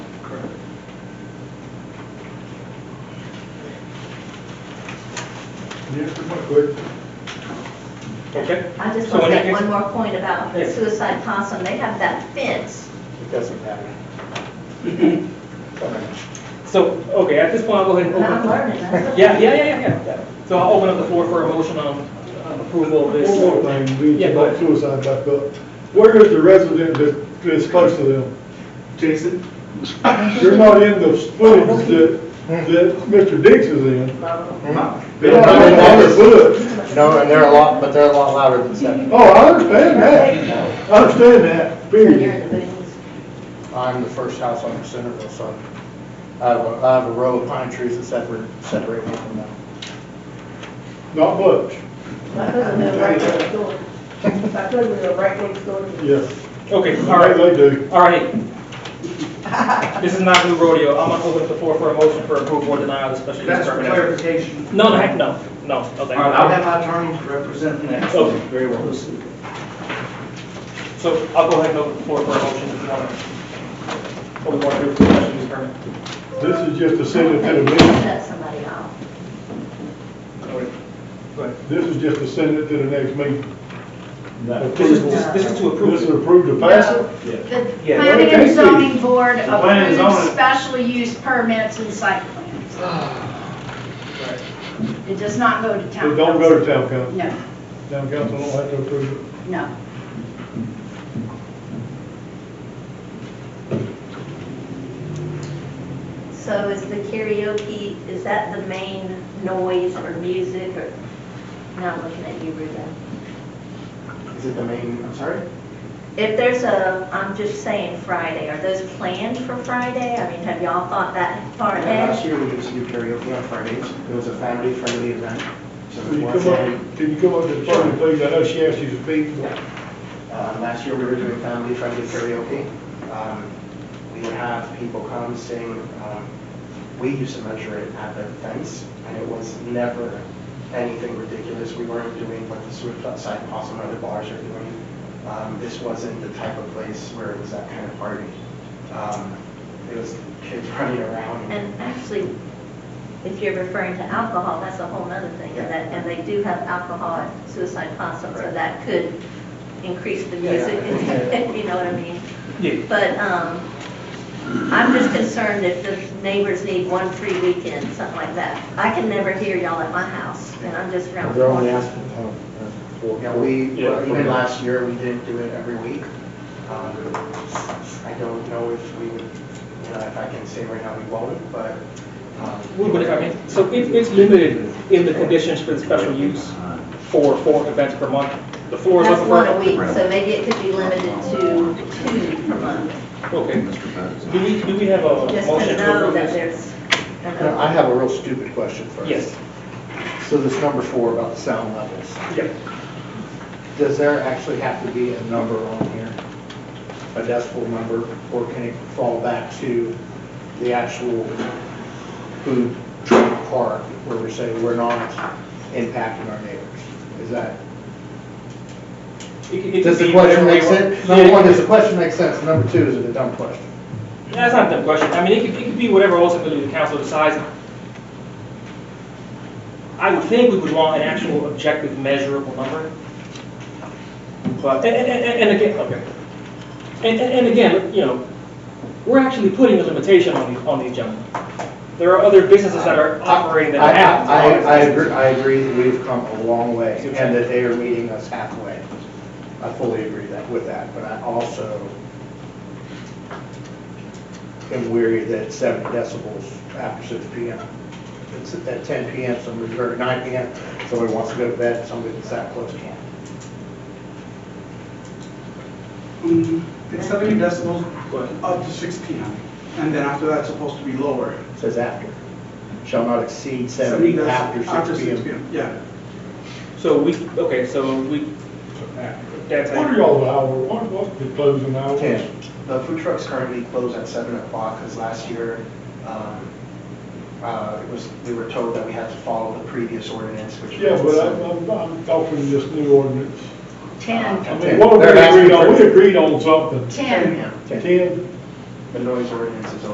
Good. Okay, I just So when want to make you- one more point about the Yeah. suicide possum, they have that fence. It doesn't matter. Sorry. so, okay, at this point, I'll go ahead and And open. I'm learning. that's- Yeah, yeah, yeah, yeah, yeah. So I'll open up the floor for a motion on on approval of this. One more thing, we Yeah, can go let ahead. suicide back up. Where is the resident that, that's close to them? Jason? They're not in the footage that, that Mr. Dix is in. They're not in No, the foot. No, and they're a lot, but they're a lot louder than seven. Oh, I understand that. I understand that, So you're period. in the boonies. I'm the first house on Centerville, so I have a, I have a row of pine trees that separate, separate me from them. Not much, My cousin lives right next door. My cousin lives right next door. to me. yes. Okay, all All right, right, they do. all right. This is not new rodeo. I'm gonna open up the floor for a motion for approval or denial of the special use That's for permit. application. clarification. No, no, heck, no, no, no, All right, I'll thank have my attorney represent the next. you. Okay, very well. So I'll go ahead and open the floor for a motion if you want. Open the floor for the special use permit. This is just to send it They to the meeting. cut somebody off. Go ahead. This is just to send it to the next meeting. This is, this- this is to approve. This is approved to pass it? The Yeah. planning Well, and thank you. zoning board The planning and approves zoning. special use permits and site plans. Ah. It does not go to town council. It don't go to town council. No, Town council don't have to approve it. no. So is the karaoke, is that the main noise or music or, now I'm looking at you, Ruben. Is it the main, I'm sorry? If there's a, I'm just saying Friday, are those planned for Friday? I mean, have y'all thought that far Yeah, ahead? Last year, we used to do karaoke on Fridays. It was a family-friendly event. So Can it you was, come up, can you come up to the podium, please? I know she asked you to speak, but- uh, last year, we were doing family-friendly karaoke. Um, We would have people come sing, um, we used to measure it at the fence, and it was never anything ridiculous. We weren't doing what the suicide possum and other bars are doing. Um, This wasn't the type of place where it was that kind of party. Um, It was kids running around. And actually, if you're referring to alcohol, that's a whole nother thing. And that, and they do have alcohol at Suicide Possum, so Right. that could increase the Yeah, yeah. music, you know what I mean? Yeah. But, um, I'm just concerned if the neighbors need one free weekend, something like that. I can never hear y'all at my house, and I'm just around the corner. Yeah, we, Yeah. well, even last year, we didn't do it every week. Um, I don't know if we would, you know, if I can say right now we won't, but. um, Well, But if I mean, so it, it's limited in the conditions for the special use for four events per month. The floor is That's open one a for. week, so maybe it could be limited to two per month, Okay. Do we, do we have a just motion to to know approve that this? there's. an Now, I have a real stupid question first. Yes. So this number four about the sound levels, Yep. does there actually have to be a number on here? A decibel number, or can it fall back to the actual food truck park where we say we're not impacting our neighbors? Is that? It- it could Does the be whatever question make you want. sense? Yeah, Number it one, could does be- the question make sense? Number two, is it a dumb question? That's not the question. I mean, it could, it could be whatever ultimately the council decides. I would think we would want an actual objective measurable number. But, and, and, and- and again, okay. And, and, and again, you know, we're actually putting a limitation on these, on these gentlemen. There are other businesses that are operating that I- have. I, I agree, I agree that we've come a long way and that they are meeting us halfway. I fully agree that, with that, but I also am weary that seven decibels after six P M. It's at that ten P M, somebody, or nine P M, somebody wants to go to bed, somebody that's that close can't. Mm, It's 70 decibels Go ahead. up to 6 PM, and then after that, it's supposed to be lower. It Says after, shall not exceed seventy deci- after After six P 6 M. PM, yeah. So we, okay, so we, that's. What are y'all, hour, what, what, the closing hours? Ten. The food trucks currently close at seven o'clock, because last year, um, uh, it was, we were told that we had to follow the previous ordinance, which. Yeah, was- but I'm, I'm, I'm talking this new ordinance. Ten, I Okay. mean, what we They're asking agreed on, for- we agreed on something. ten. Ten. Ten? The noise ordinance is